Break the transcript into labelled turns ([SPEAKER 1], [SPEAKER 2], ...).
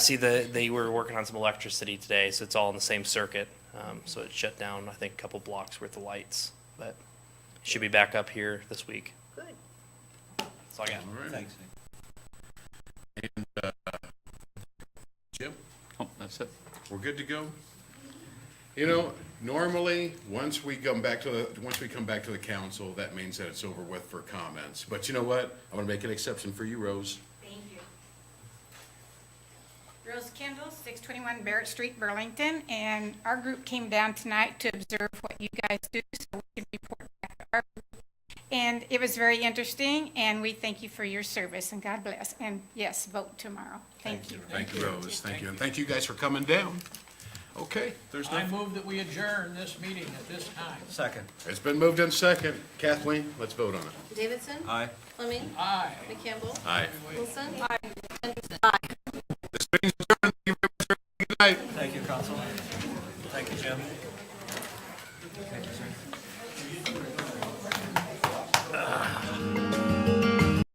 [SPEAKER 1] See, the, they were working on some electricity today, so it's all in the same circuit. Um, so it shut down, I think, a couple blocks worth of lights, but it should be back up here this week.
[SPEAKER 2] Good.
[SPEAKER 1] That's all I got.
[SPEAKER 3] Thanks.
[SPEAKER 4] And, uh, Jim,
[SPEAKER 3] Oh, that's it.
[SPEAKER 4] we're good to go? You know, normally, once we come back to the, once we come back to the council, that means that it's over with for comments. But you know what? I'm gonna make an exception for you, Rose.
[SPEAKER 5] Thank you. Rose Kendall, 621 Barrett Street, Burlington, and our group came down tonight to observe what you guys do so we can report back to our group. And it was very interesting, and we thank you for your service, and God bless. And yes, vote tomorrow. Thank you.
[SPEAKER 4] Thank you, Rose. Thank you. And thank you guys for coming down. Okay, there's no,
[SPEAKER 6] I move that we adjourn this meeting at this time.
[SPEAKER 3] Second.
[SPEAKER 4] it's been moved in second. Kathleen, let's vote on it.
[SPEAKER 2] Davidson?
[SPEAKER 3] Aye.
[SPEAKER 2] Fleming?
[SPEAKER 6] Aye.
[SPEAKER 2] McCampbell?
[SPEAKER 4] Aye.
[SPEAKER 2] Wilson?
[SPEAKER 4] Good night.
[SPEAKER 3] Thank you, Council. Thank you, Jim.